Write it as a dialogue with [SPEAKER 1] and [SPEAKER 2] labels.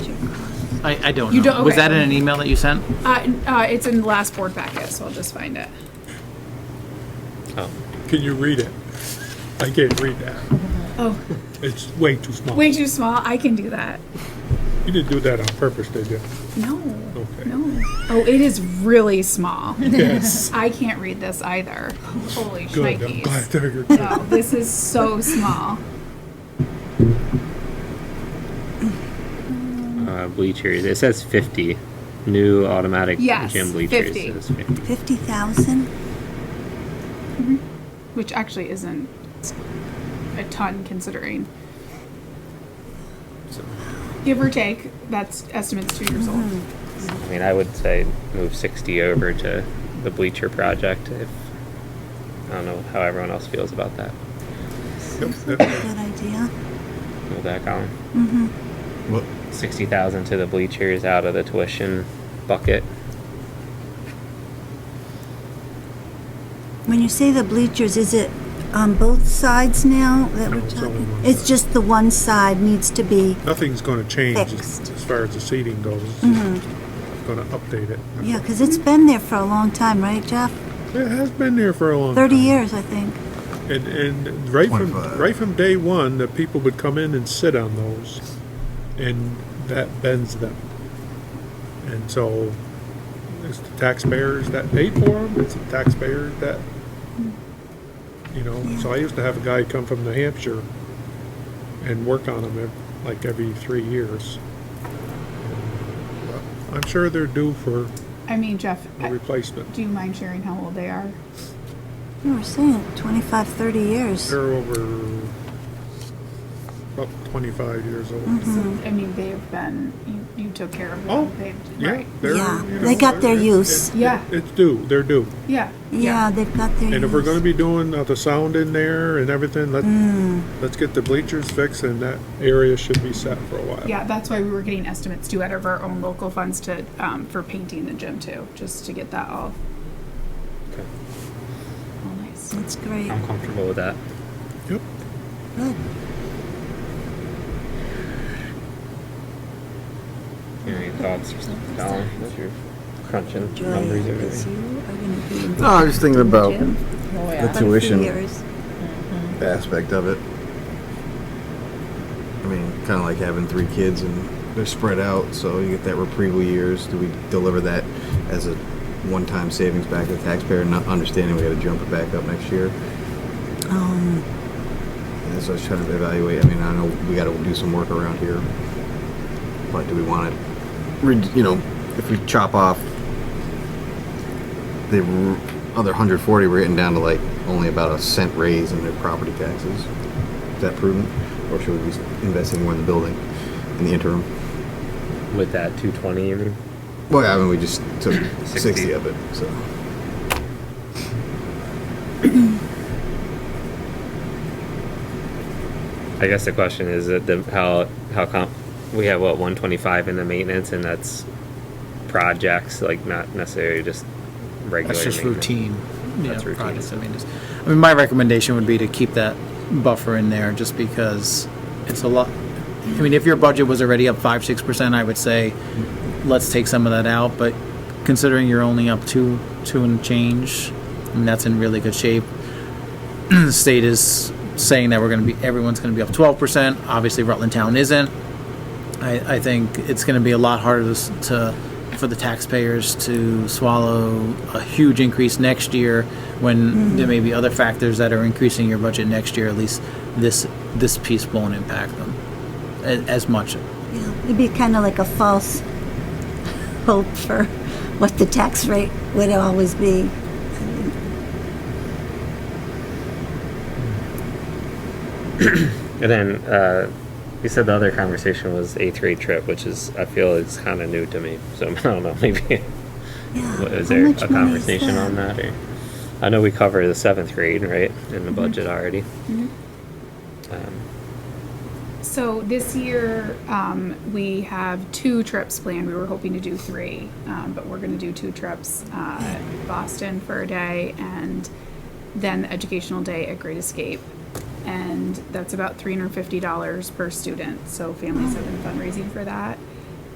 [SPEAKER 1] Uh,
[SPEAKER 2] I, I don't
[SPEAKER 1] You
[SPEAKER 2] know.
[SPEAKER 1] don't-
[SPEAKER 2] Was
[SPEAKER 1] okay.
[SPEAKER 2] that in an email that you sent?
[SPEAKER 1] Uh, uh, it's in the last board packet, so I'll just find it.
[SPEAKER 3] Can you read it? I can't read that.
[SPEAKER 1] Oh,
[SPEAKER 3] It's way too small.
[SPEAKER 1] way too small. I can do that.
[SPEAKER 3] You didn't do that on purpose, did you?
[SPEAKER 1] No,
[SPEAKER 3] Okay.
[SPEAKER 1] no. Oh, it is really small.
[SPEAKER 3] Yes.
[SPEAKER 1] I can't read this either. Holy
[SPEAKER 3] Good, I'm glad
[SPEAKER 1] shnikes.
[SPEAKER 3] that you're good.
[SPEAKER 1] No, this is so small.
[SPEAKER 4] Uh, bleachers. It says 50. New automatic
[SPEAKER 1] Yes,
[SPEAKER 4] gym bleachers.
[SPEAKER 1] 50.
[SPEAKER 4] It says 50.
[SPEAKER 5] 50,000?
[SPEAKER 1] which actually isn't a ton considering.
[SPEAKER 4] So,
[SPEAKER 1] Give or take, that's estimates two years old.
[SPEAKER 4] I mean, I would say move 60 over to the bleacher project if. I don't know how everyone else feels about that.
[SPEAKER 5] Seems like a good idea.
[SPEAKER 4] Move that column.
[SPEAKER 6] What?
[SPEAKER 4] 60,000 to the bleachers out of the tuition bucket.
[SPEAKER 5] When you say the bleachers, is it on both sides now that
[SPEAKER 3] No,
[SPEAKER 5] we're
[SPEAKER 3] it's only
[SPEAKER 5] talking?
[SPEAKER 3] one
[SPEAKER 5] It's
[SPEAKER 3] side.
[SPEAKER 5] just the one side needs to be,
[SPEAKER 3] Nothing's gonna change as
[SPEAKER 5] Fixed.
[SPEAKER 3] as far as the seating goes. It's just Gonna update it.
[SPEAKER 5] yeah, because it's been there for a long time, right, Jeff?
[SPEAKER 3] It has been there for a long time.
[SPEAKER 5] 30 years, I think.
[SPEAKER 3] And, and right from,
[SPEAKER 6] 25.
[SPEAKER 3] right from day one, the people would come in and sit on those, and that bends them. And so, it's the taxpayers that paid for them, it's the taxpayers that, you know, so I used to have a guy come from New Hampshire and work on them ev- like every three years. But I'm sure they're due for
[SPEAKER 1] I mean, Jeff,
[SPEAKER 3] a replacement.
[SPEAKER 1] do you mind sharing how old they are?
[SPEAKER 5] You were saying 25, 30 years.
[SPEAKER 3] They're over about 25 years old.
[SPEAKER 1] I mean, they've been, you, you took care of them.
[SPEAKER 3] Oh,
[SPEAKER 1] they've,
[SPEAKER 3] Yeah,
[SPEAKER 1] right.
[SPEAKER 3] they're,
[SPEAKER 5] Yeah,
[SPEAKER 3] you
[SPEAKER 5] they
[SPEAKER 3] know,
[SPEAKER 5] got their
[SPEAKER 3] it- it-
[SPEAKER 5] use.
[SPEAKER 3] it-
[SPEAKER 1] Yeah.
[SPEAKER 3] It's due, they're due.
[SPEAKER 1] Yeah.
[SPEAKER 5] Yeah, they've got their
[SPEAKER 3] And if we're
[SPEAKER 5] use.
[SPEAKER 3] gonna be doing uh, the sound in there and everything, let,
[SPEAKER 1] Mm.
[SPEAKER 3] let's get the bleachers fixed and that area should be set for a while.
[SPEAKER 1] Yeah, that's why we were getting estimates too out of our own local funds to, um, for painting the gym too, just to get that all,
[SPEAKER 4] Okay.
[SPEAKER 1] all nice.
[SPEAKER 5] That's great.
[SPEAKER 4] I'm comfortable with that.
[SPEAKER 3] Yep.
[SPEAKER 5] Good.
[SPEAKER 4] Any thoughts, Colin? What's your crunching numbers? over there?
[SPEAKER 5] No,
[SPEAKER 6] No, I
[SPEAKER 3] Ah,
[SPEAKER 6] was just thinking about the tuition
[SPEAKER 5] Years.
[SPEAKER 6] aspect of it. I mean, kind of like having three kids and they're spread out, so you get that reprieval years. Do we deliver that as a one-time savings back to the taxpayer, not understanding we got to jump it back up next year?
[SPEAKER 5] Um,
[SPEAKER 6] And so I was trying to evaluate. I mean, I know we got to do some work around here, but do we want to, re- you know, if we chop off the r- other 140, we're getting down to like only about a cent raise in their property taxes. Is that prudent, or should we be investing more in the building in the interim?
[SPEAKER 4] With that 220, you mean?
[SPEAKER 6] Well, I mean, we just took 60,
[SPEAKER 4] 60
[SPEAKER 6] of it, so
[SPEAKER 4] I guess the question is that the how how comp we have what 125 in the maintenance and that's projects like not necessarily just regular.
[SPEAKER 2] That's just
[SPEAKER 4] maintenance.
[SPEAKER 2] routine. you know,
[SPEAKER 4] That's routine.
[SPEAKER 2] projects. I mean, just, I mean, my recommendation would be to keep that buffer in there just because it's a lot. I mean, if your budget was already up five, six percent, I would say, let's take some of that out, but considering you're only up two, two and change, and that's in really good shape. The state is saying that we're gonna be, everyone's gonna be up twelve percent, obviously Rutland Town isn't. I, I think it's going to be a lot harder to, s- to for the taxpayers to swallow a huge increase next year when there may be other factors that are increasing your budget next year. At least this this piece won't impact them as, as much.
[SPEAKER 5] yeah, it'd be kind of like a false hope for what the tax rate would always be.
[SPEAKER 4] And then uh, you said the other conversation was a three trip, which is I feel it's kind of new to me. So I don't know. Maybe
[SPEAKER 5] Yeah.
[SPEAKER 4] was
[SPEAKER 5] how
[SPEAKER 4] there a
[SPEAKER 5] much money is
[SPEAKER 4] conversation on that? Or I know we covered the seventh grade right in
[SPEAKER 5] Mm-hmm.
[SPEAKER 4] the budget already. Um,
[SPEAKER 1] So this year, um, we have two trips planned. We were hoping to do three, um, but we're going to do two trips uh, Boston for a day and then the educational day at Great Escape. And that's about $350 per student. So families have been fundraising for that.